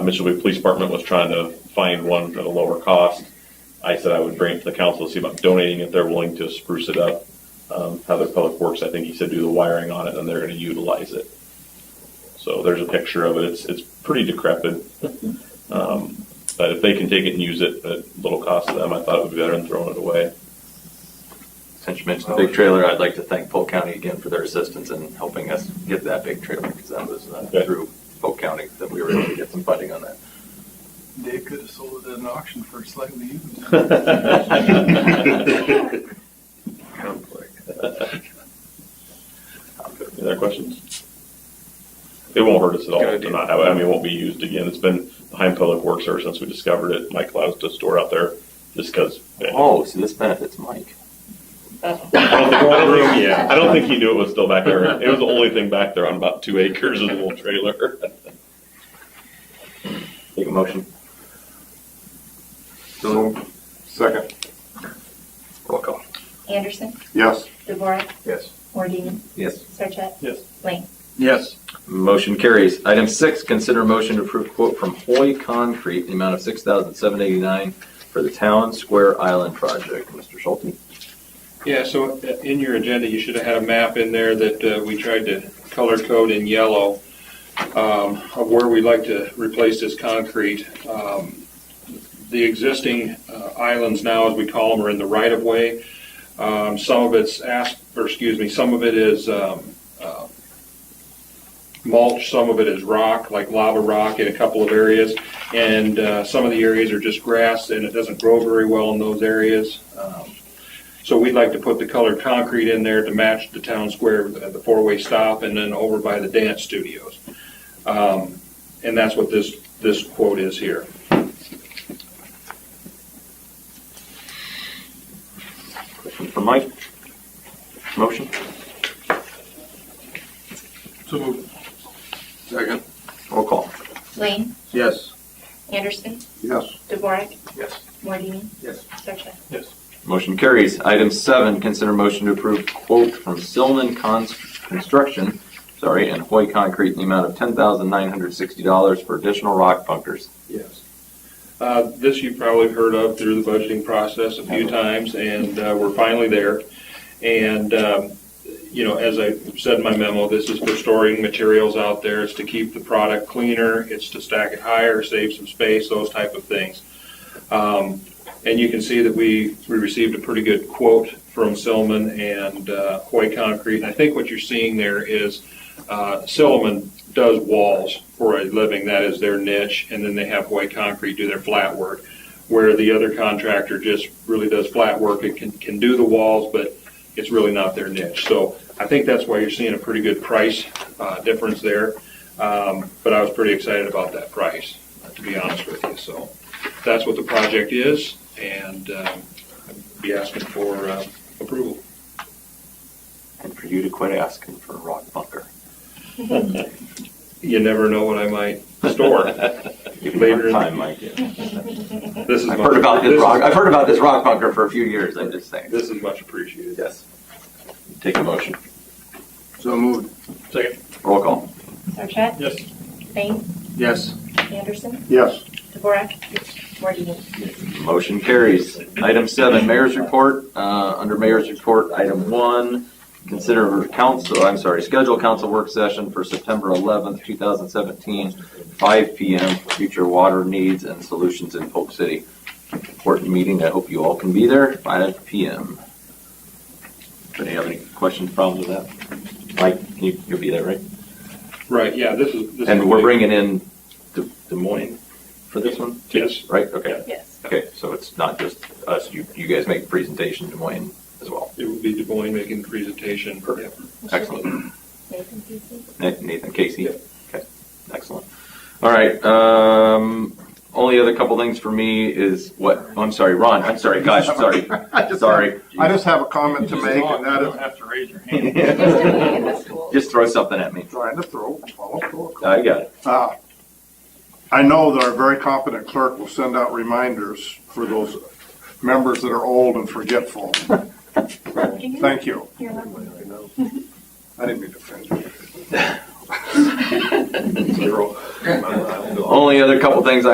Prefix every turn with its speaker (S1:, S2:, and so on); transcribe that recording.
S1: Mitchellville Police Department was trying to find one at a lower cost. I said I would bring it to the council, see about donating it. They're willing to spruce it up. Um, how their public works, I think he said, do the wiring on it and they're gonna utilize it. So there's a picture of it. It's, it's pretty decrepit. Um, but if they can take it and use it at little cost to them, I thought it would be better than throwing it away.
S2: Since you mentioned the big trailer, I'd like to thank Polk County again for their assistance in helping us get that big trailer, because that was uh,
S1: Okay.
S2: through Polk County that we were able to get some funding on that.
S3: Dave could have sold it at an auction for slightly used.
S1: Any other questions? It won't hurt us at all
S4: Good
S1: to
S4: idea.
S1: not have it. I mean, it won't be used again. It's been behind Public Works ever since we discovered it. Mike allows to store out there just eh, because. I
S2: Oh, so this benefits Mike.
S1: don't think- I don't think- yeah, I don't think he knew it was still back there. It was the only thing back there on about two acres of the little trailer.
S2: Take a motion.
S4: Second.
S2: Roll call.
S5: Anderson,
S4: Yes.
S5: DeVore,
S4: Yes.
S5: Mordini,
S2: Yes.
S5: Sarchet,
S1: Yes.
S5: Lane.
S4: Yes.
S2: Motion carries. Item six, consider motion to approve quote from Hoy Concrete, in the amount of six thousand seven eighty-nine for the Town Square Island project. Mr. Schulte?
S4: Yeah, so uh, in your agenda, you should have had a map in there that uh, we tried to color code in yellow um, of where we'd like to replace this concrete. Um, The existing uh, islands now, as we call them, are in the right of way. Um, Some of it's asp, or excuse me, some of it is um, uh, mulch, some of it is rock, like lava rock in a couple of areas. And uh, some of the areas are just grass and it doesn't grow very well in those areas. Um, so we'd like to put the colored concrete in there to match the town square, uh, the the four-way stop, and then over by the dance studios. Um, And that's what this, this quote is here.
S2: Question from Mike? Motion?
S3: So moved.
S4: Second.
S2: Roll call.
S5: Lane,
S4: Yes.
S5: Anderson,
S4: Yes.
S5: DeVore,
S4: Yes.
S5: Mordini,
S4: Yes.
S5: Sarchet.
S2: Motion carries. Item seven, consider motion to approve quote from Silman Cons- Construction, sorry, and Hoy Concrete in the amount of ten thousand nine hundred sixty dollars for additional rock bunkers.
S4: Yes. Uh, This you've probably heard of through the budgeting process a few times, and uh, we're finally there. And, um, you know, as I said in my memo, this is for storing materials out there. It's to keep the product cleaner, it's to stack it higher, save some space, those type of things. Um, And you can see that we, we received a pretty good quote from Silliman and uh, Hoy Concrete. And I think what you're seeing there is uh, Silliman does walls for a living. That is their niche. And then they have white concrete do their flat work, where the other contractor just really does flat work and can, can do the walls, but it's really not their niche. So I think that's why you're seeing a pretty good price uh, difference there. Um, but I was pretty excited about that price, uh, to be honest with you. So that's what the project is, and um, I'd be asking for uh, approval.
S2: And for you to quit asking for a rock bunker.
S4: You never know what I might store.
S2: Give me
S4: Later in-
S2: more time, Mike.
S4: This is
S2: I've
S4: my-
S2: heard about
S4: this
S2: this
S4: is-
S2: rock, I've heard about this rock bunker for a few years, I'm just saying.
S4: This is much appreciated.
S2: Yes. Take a motion.
S3: So moved.
S4: Second.
S2: Roll call.
S5: Sarchet,
S4: Yes.
S5: Lane,
S3: Yes.
S5: Anderson,
S3: Yes.
S5: DeVore, Mordini.
S2: Motion carries. Item seven, mayor's report. Uh, Under mayor's report, item one, consider council, I'm sorry, schedule council work session for September 11th, 2017, 5 PM, for future water needs and solutions in Polk City. Important meeting. I hope you all can be there, 5 PM. Do you have any questions, problems with that? Mike, can you, you'll be there, right?
S4: Right, yeah, this is. this is-
S2: And we're bringing in Des Des Moines for this one,
S4: Yes,
S2: right? Okay.
S5: Yes.
S2: Okay, so it's not just us, you, you guys make presentation Des Moines as well.
S4: it would be Des Moines making the presentation. Perfect.
S2: Excellent.
S5: Nathan Peasy,
S2: Na- Nathan Casey? Okay, excellent. All right, um, only other couple things for me is what, oh, I'm sorry, Ron, I'm sorry, gosh, sorry, sorry.
S6: I just have a comment to make, and that is,
S3: have to raise your hand.
S2: Just
S5: school.
S2: throw something at me.
S6: trying to throw, follow protocol.
S2: I got it.
S6: Uh, I know that our very competent clerk will send out reminders for those members that are old and forgetful. Thank you.
S5: You're welcome.
S6: I didn't mean to offend you.
S2: Only other couple things I